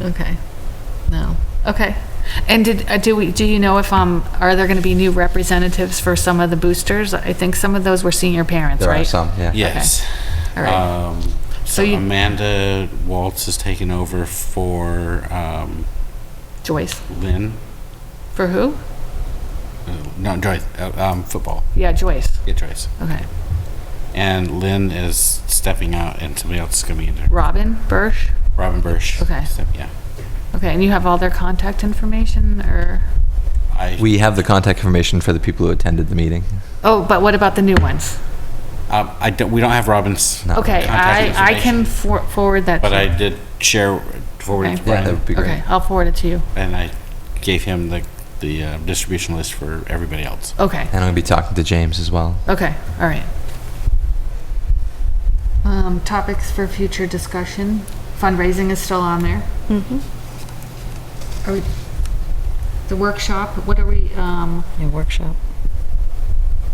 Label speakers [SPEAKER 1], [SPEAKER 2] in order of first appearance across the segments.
[SPEAKER 1] Okay. No. Okay. And did, uh, do we, do you know if, um, are there going to be new representatives for some of the boosters? I think some of those were senior parents,
[SPEAKER 2] There
[SPEAKER 1] right?
[SPEAKER 2] are some, yeah.
[SPEAKER 3] Yes.
[SPEAKER 1] All right.
[SPEAKER 3] Um, so
[SPEAKER 1] So you-
[SPEAKER 3] Amanda Waltz has taken over for um,
[SPEAKER 1] Joyce.
[SPEAKER 3] Lynn.
[SPEAKER 1] For who?
[SPEAKER 3] Uh, no, Joyce. Uh, um, football.
[SPEAKER 1] Yeah, Joyce.
[SPEAKER 3] Yeah, Joyce.
[SPEAKER 1] Okay.
[SPEAKER 3] And Lynn is stepping out, and somebody else is coming in there.
[SPEAKER 1] Robin Birch.
[SPEAKER 3] Robin Birch.
[SPEAKER 1] Okay.
[SPEAKER 3] Step- yeah.
[SPEAKER 1] Okay. And you have all their contact information or,
[SPEAKER 3] I.
[SPEAKER 2] We have the contact information for the people who attended the meeting.
[SPEAKER 1] oh, but what about the new ones?
[SPEAKER 3] Um, I don't. We don't have Robin's.
[SPEAKER 2] No.
[SPEAKER 1] Okay.
[SPEAKER 3] Contact
[SPEAKER 1] I, I can
[SPEAKER 3] information.
[SPEAKER 1] for- forward that.
[SPEAKER 3] But
[SPEAKER 1] to-
[SPEAKER 3] I did share forward
[SPEAKER 1] Okay.
[SPEAKER 3] to
[SPEAKER 2] Yeah, that
[SPEAKER 3] Brian,
[SPEAKER 2] would be
[SPEAKER 1] Okay.
[SPEAKER 2] great.
[SPEAKER 1] I'll forward it to you.
[SPEAKER 3] and I gave him the the uh, distribution list for everybody else.
[SPEAKER 1] Okay.
[SPEAKER 2] And I'm going to be talking to James as well.
[SPEAKER 1] Okay, all right. Um, topics for future discussion. Fundraising is still on there. Are we, the workshop, what are we, um,
[SPEAKER 4] A workshop.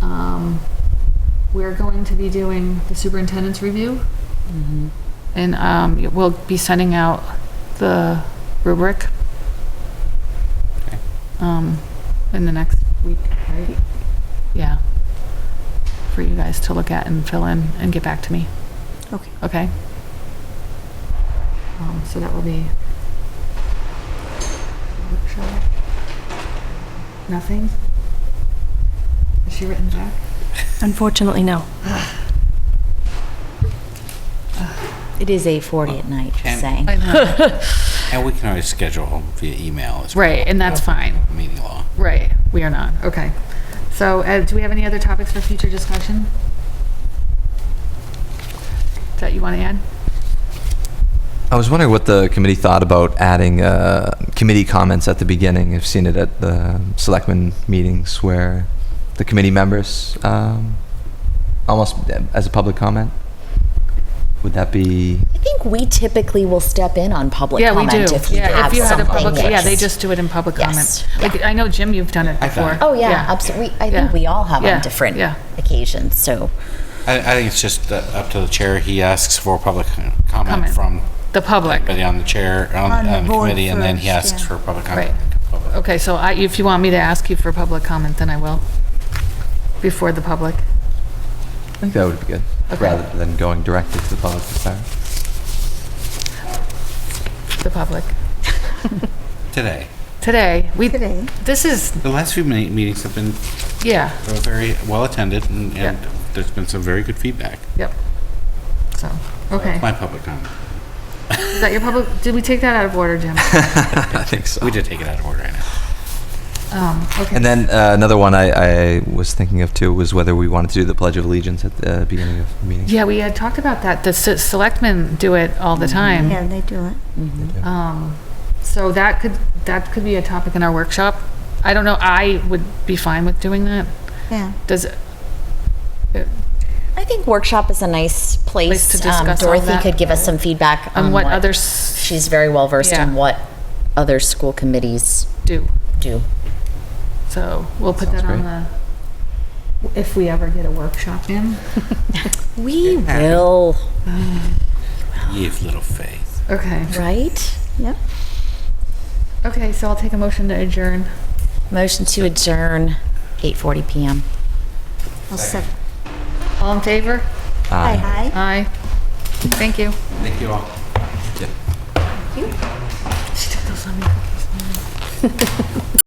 [SPEAKER 1] um, we're going to be doing the superintendent's review. And, um, we'll be sending out the rubric. Um, in the next week, right? Yeah. For you guys to look at and fill in and get back to me,
[SPEAKER 4] Okay.
[SPEAKER 1] okay? Um, so that will be. workshop. Nothing? Is she written back?
[SPEAKER 4] Unfortunately, no.
[SPEAKER 5] It is 8:40 at night,
[SPEAKER 3] And-
[SPEAKER 5] just saying.
[SPEAKER 3] And we can always schedule via email as well.
[SPEAKER 1] Right, and that's fine.
[SPEAKER 3] Meeting law.
[SPEAKER 1] Right, we are not, okay. So, uh, do we have any other topics for future discussion? That you want to add?
[SPEAKER 2] I was wondering what the committee thought about adding uh, committee comments at the beginning. I've seen it at the selectmen meetings where the committee members, um, almost uh, as a public comment. Would that be,
[SPEAKER 5] I think we typically will step in on public
[SPEAKER 1] Yeah, we
[SPEAKER 5] comment
[SPEAKER 1] do.
[SPEAKER 5] if we
[SPEAKER 1] Yeah,
[SPEAKER 5] have
[SPEAKER 1] if you had a
[SPEAKER 5] something
[SPEAKER 1] public, yeah, they
[SPEAKER 5] that's...
[SPEAKER 1] just do it in public comment.
[SPEAKER 5] Yes,
[SPEAKER 1] Like, I know, Jim, you've done it before.
[SPEAKER 5] Oh, yeah, absolutely. I
[SPEAKER 1] Yeah.
[SPEAKER 5] think we all have
[SPEAKER 1] Yeah,
[SPEAKER 5] on different
[SPEAKER 1] yeah.
[SPEAKER 5] occasions, so.
[SPEAKER 3] I, I think it's just uh, up to the chair. He asks for public comment,
[SPEAKER 1] Comment.
[SPEAKER 3] from
[SPEAKER 1] The public,
[SPEAKER 3] everybody on the chair, on,
[SPEAKER 6] On the
[SPEAKER 3] on the
[SPEAKER 6] board
[SPEAKER 3] committee, and then he
[SPEAKER 6] first,
[SPEAKER 3] asks
[SPEAKER 6] yeah.
[SPEAKER 3] for public comment. Public.
[SPEAKER 1] okay, so I, if you want me to ask you for public comment, then I will, before the public.
[SPEAKER 2] I think that would be good,
[SPEAKER 1] Okay.
[SPEAKER 2] rather than going directly to the public to start.
[SPEAKER 1] the public.
[SPEAKER 3] Today.
[SPEAKER 1] Today, we,
[SPEAKER 6] Today.
[SPEAKER 1] this is,
[SPEAKER 3] The last few me- meetings have been
[SPEAKER 1] yeah,
[SPEAKER 3] uh, very well attended, and, and
[SPEAKER 1] Yeah.
[SPEAKER 3] there's been some very good feedback.
[SPEAKER 1] yep. So, okay.
[SPEAKER 3] My public comment.
[SPEAKER 1] Is that your public, did we take that out of order, Jim?
[SPEAKER 2] I think so.
[SPEAKER 3] We did take it out of order. I know.
[SPEAKER 1] Um, okay.
[SPEAKER 2] And then uh, another one I, I was thinking of too was whether we wanted to do the Pledge of Allegiance at the beginning of the meeting.
[SPEAKER 1] Yeah, we had talked about that. The se- selectmen do it all the time.
[SPEAKER 6] Mm-hmm. Yeah, they do it.
[SPEAKER 1] Um, so that could, that could be a topic in our workshop. I don't know, I would be fine with doing that.
[SPEAKER 6] Yeah.
[SPEAKER 1] Does, it-
[SPEAKER 5] I think workshop is a nice
[SPEAKER 1] Place to
[SPEAKER 5] place. Um,
[SPEAKER 1] discuss all
[SPEAKER 5] Dorothy
[SPEAKER 1] that.
[SPEAKER 5] could give us some feedback
[SPEAKER 1] on
[SPEAKER 5] on
[SPEAKER 1] what
[SPEAKER 5] what,
[SPEAKER 1] others
[SPEAKER 5] she's very well versed
[SPEAKER 1] Yeah.
[SPEAKER 5] in what other school committees
[SPEAKER 1] do.
[SPEAKER 5] do.
[SPEAKER 1] So we'll put that on
[SPEAKER 2] Sounds
[SPEAKER 1] the, if we ever get a workshop in.
[SPEAKER 5] We will,
[SPEAKER 3] Ye of little faith.
[SPEAKER 1] Okay,
[SPEAKER 5] right?
[SPEAKER 6] Yep.
[SPEAKER 1] okay, so I'll take a motion to adjourn.
[SPEAKER 5] Motion to adjourn, 8:40 PM.
[SPEAKER 6] I'll sec-
[SPEAKER 1] All in favor?
[SPEAKER 6] Aye. Aye.
[SPEAKER 1] Aye. Thank you.
[SPEAKER 3] Thank you all.
[SPEAKER 1] She took those on me.